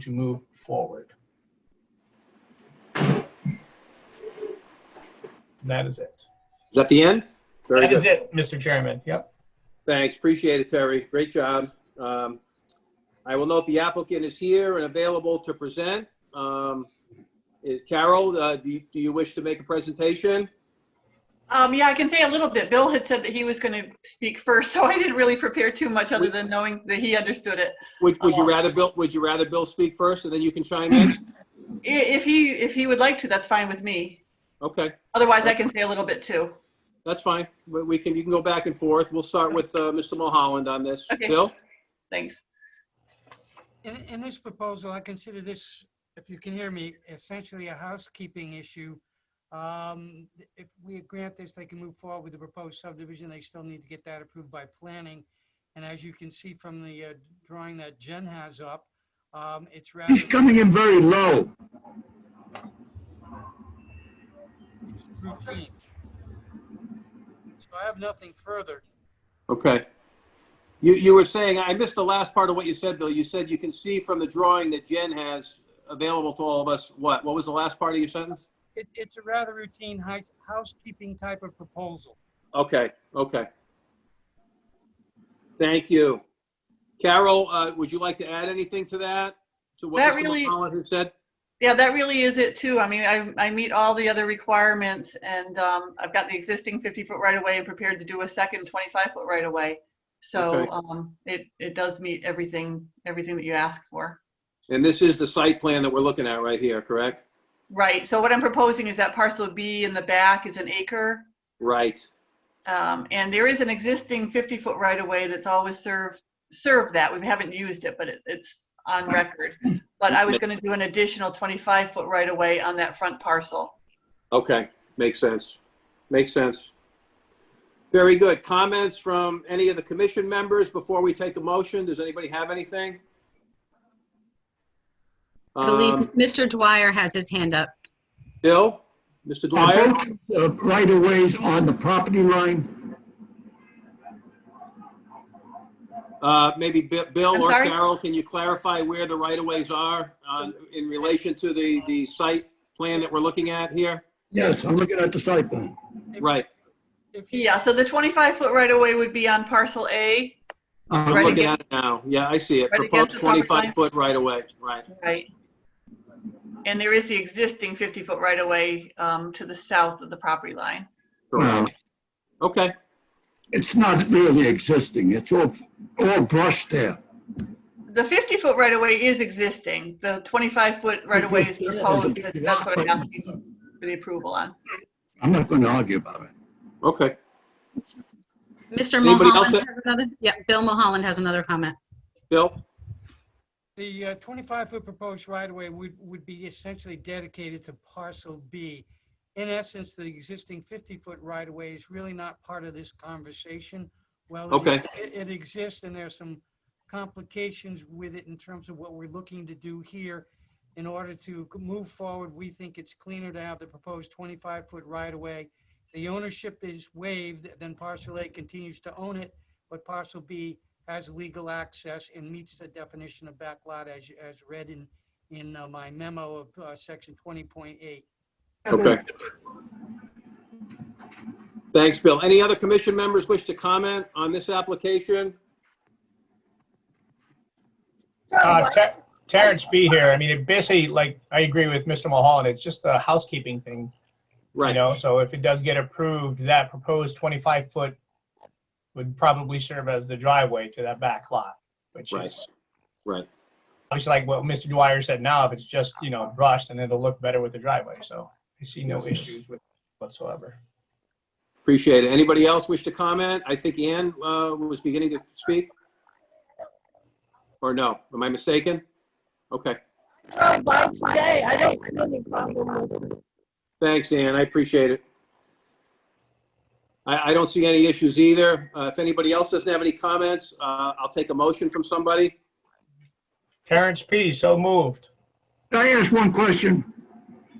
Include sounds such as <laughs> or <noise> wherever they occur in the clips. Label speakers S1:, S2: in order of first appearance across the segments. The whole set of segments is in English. S1: to move forward. That is it.
S2: Is that the end? Very
S1: That is
S2: good.
S1: it, Mr. Chairman. Yep.
S2: Thanks, appreciate it, Terry. Great job. Um, I will note the applicant is here and available to present. Um, is- Carol, uh, do you- do you wish to make a presentation?
S3: Um, yeah, I can say a little bit. Bill had said that he was going to speak first, <laughs> so I didn't really prepare too much other than knowing that he understood it.
S2: Would Would you
S3: Oh.
S2: rather Bill, would you rather Bill speak first and then you can chime in?
S3: I- If he, if he would like to, that's fine with me.
S2: Okay,
S3: Otherwise, I can say a little bit too.
S2: that's fine. We we can, you can go back and forth. We'll start with uh, Mr. Mulholland on this.
S3: Okay.
S2: Bill?
S3: Thanks.
S4: In, in this proposal, I consider this, if you can hear me, essentially a housekeeping issue. Um, If we grant this, they can move forward with the proposed subdivision. They still need to get that approved by planning. And as you can see from the uh, drawing that Jen has up, um, it's rather.
S5: He's coming in very low.
S4: it's routine. So I have nothing further.
S2: Okay. You, you were saying, I missed the last part of what you said, Bill. You said you can see from the drawing that Jen has available to all of us, what? What was the last part of your sentence?
S4: It, it's a rather routine house- housekeeping type of proposal.
S2: Okay, okay. Thank you. Carol, uh, would you like to add anything to that? To what
S3: That
S2: Mr.
S3: really-
S2: McCollum had said?
S3: Yeah, that really is it too. I mean, I, I meet all the other requirements and, um, I've got the existing 50-foot right-of-way and prepared to do a second 25-foot right-of-way. So,
S2: Okay.
S3: um, it, it does meet everything, everything that you asked for.
S2: And this is the site plan that we're looking at right here, correct?
S3: Right, so what I'm proposing is that parcel B in the back is an acre.
S2: Right,
S3: Um, and there is an existing 50-foot right-of-way that's always served, served that. We haven't used it, but it, it's on record. But I was gonna do an additional 25-foot right-of-way on that front parcel.
S2: okay, makes sense, makes sense. Very good. Comments from any of the commission members before we take a motion? Does anybody have anything?
S6: I believe
S2: Um,
S6: Mr. Dwyer has his hand up.
S2: Bill, Mr. Dwyer?
S5: Are both uh, right-of-ways on the property line?
S2: Uh, Maybe Bi- Bill
S3: I'm
S2: or
S3: sorry?
S2: Carol, can you clarify where the right-of-ways are on- in relation to the, the site plan that we're looking at here?
S5: Yes, I'm looking at the site plan.
S2: Right,
S4: If you-
S3: Yeah, so the 25-foot right-of-way would be on parcel A,
S2: I'm
S3: Right
S2: looking at
S3: against-
S2: it now. Yeah, I see it.
S3: Right against
S2: Proposed
S3: the property line?
S2: 25-foot right-of-way, right.
S3: right? And there is the existing 50-foot right-of-way, um, to the south of the property line.
S5: Well,
S2: correct. Okay,
S5: it's not really existing. It's all, all brush there.
S3: The 50-foot right-of-way is existing. The 25-foot right-of-way
S5: <laughs>
S3: is
S5: Yeah,
S3: proposed.
S5: it's-
S3: That's what I'm asking for the approval on.
S5: I'm not going to argue about it.
S2: okay.
S6: Mr.
S2: Anybody else
S6: Mulholland
S2: that-
S6: has another, yeah, Bill Mulholland has another comment.
S2: Bill?
S4: The uh, 25-foot proposed right-of-way would, would be essentially dedicated to parcel B. In essence, the existing 50-foot right-of-way is really not part of this conversation. Well,
S2: Okay.
S4: It, e, it exists and there's some complications with it in terms of what we're looking to do here. In order to c- move forward, we think it's cleaner to have the proposed 25-foot right-of-way. The ownership is waived, then parcel A continues to own it, but parcel B has legal access and meets the definition of backlot as, as read in, in uh, my memo of uh, section 20.8.
S2: Okay. Thanks, Bill. Any other commission members wish to comment on this application?
S1: Uh, Ter- Terrence B here. I mean, it basically, like, I agree with Mr. Mulholland. It's just a housekeeping thing, you
S2: Right.
S1: know? So if it does get approved, that proposed 25-foot would probably serve as the driveway to that back lot, which
S2: Right.
S1: is
S2: Right.
S1: obviously like what Mr. Dwyer said now, if it's just, you know, brush, then it'll look better with the driveway. So I see no issues with whatsoever.
S2: Appreciate it. Anybody else wish to comment? I think Ann uh, was beginning to speak. Or no? Am I mistaken? Okay.
S7: Oh, Bob, today, I don't see any problem with it.
S2: Thanks, Ann. I appreciate it. I, I don't see any issues either. Uh, If anybody else doesn't have any comments, uh, I'll take a motion from somebody.
S1: Terrence P., so moved.
S5: Can I ask one question?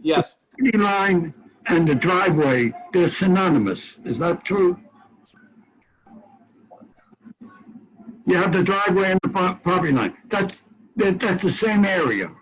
S2: Yes.
S5: Property line and the driveway, they're synonymous. Is that true? You have the driveway and the pro- property line. That's, that, that's the same area.